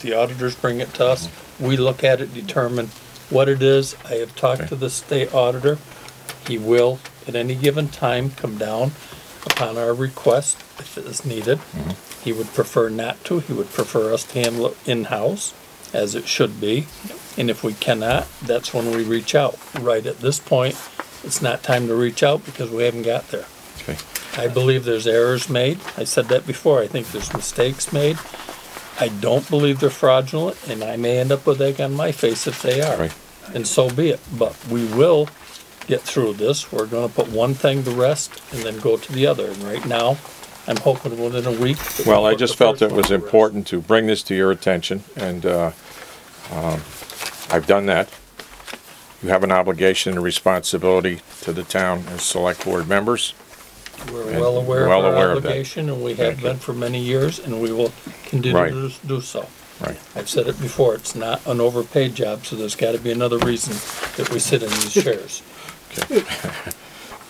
the auditors bring it to us, we look at it, determine what it is. I have talked to Okay. the state auditor. He will, at any given time, come down upon our request if it is needed. He would prefer not to. He would prefer us to handle it in-house, as it should be. And if we cannot, that's when we reach out. Right at this point, it's not time to reach out because we haven't got there. Okay. I believe there's errors made. I said that before. I think there's mistakes made. I don't believe they're fraudulent, and I may end up with egg on my face if they are. Right. And so be it. But we will get through this. We're gonna put one thing to rest and then go to the other. And right now, I'm hoping within a week. that Well, we'll I put just the felt first it one was to rest. important to bring this to your attention, and uh, um, I've done that. You have an obligation and responsibility to the town as select board members. We're and well aware of well our aware of that. obligation, and we Thank have you. been for many years, and we will Right. continue to do so. Right. I've said it before, it's not an overpaid job, so there's gotta be another reason that we sit in these chairs. Okay.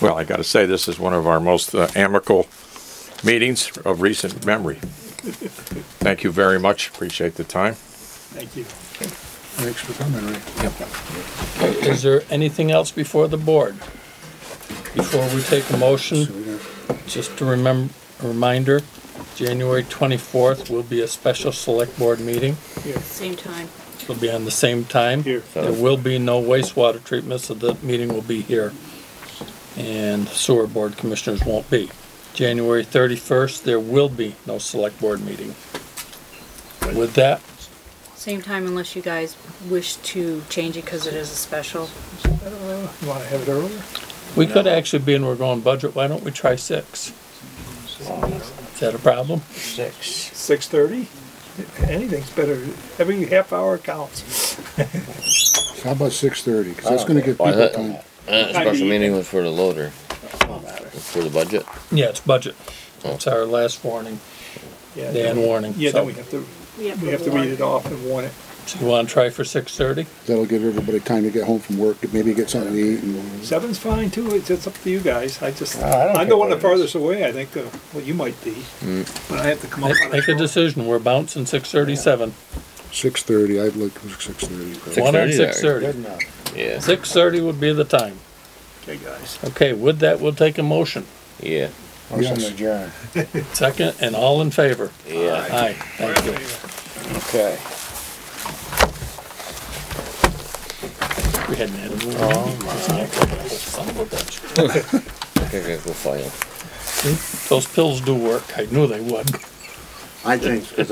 Well, I gotta say, this is one of our most uh, amicable meetings of recent memory. Thank you very much, appreciate the time. Thank you. Thanks for coming, Rick. Is there anything else before the board? Before we take a So motion, we got- just to remember, reminder, January twenty-fourth will be a special select board meeting. Same time. It'll be on the same time. Here. There will be no wastewater treatment, so the meeting will be here. And sewer board commissioners won't be. January thirty-first, there will be no select board meeting. With that, Same time unless you guys wish to change it because it is a special. You want to have it earlier? we could actually be, and we're going budget, why don't we try six? Is that a problem? Six. Six thirty? Anything's better. Every half hour counts. Uh, How about six thirty? Cause that's gonna give Oh, Why people that- time. That special meeting was for the loader, for the budget. Yeah, it's budget. It's our last warning, Yeah, Dan then- warning. Yeah, So, then we have to, we have to read it off and warn it. so You wanna try for six thirty? That'll give everybody time to get home from work, maybe get something to eat and. Seven's fine too. It's, it's up to you guys. I just, No, Uh, I don't I'm care the one what the it is. Mm. farthest away, I think, uh, well, you might be. But I have to come up on a Make a short. decision, we're bouncing six thirty-seven. Six thirty, I'd like six thirty. Six- One on 6:30 there. six thirty. Yeah, Six thirty would be the time. Okay, guys. Okay, with that, we'll take a motion. yeah, Second, and all in favor? yeah. Aye, thank you. Okay. We hadn't had a meeting. Son of a bitch. I think I go file. Those pills do work, I knew they would. I think, because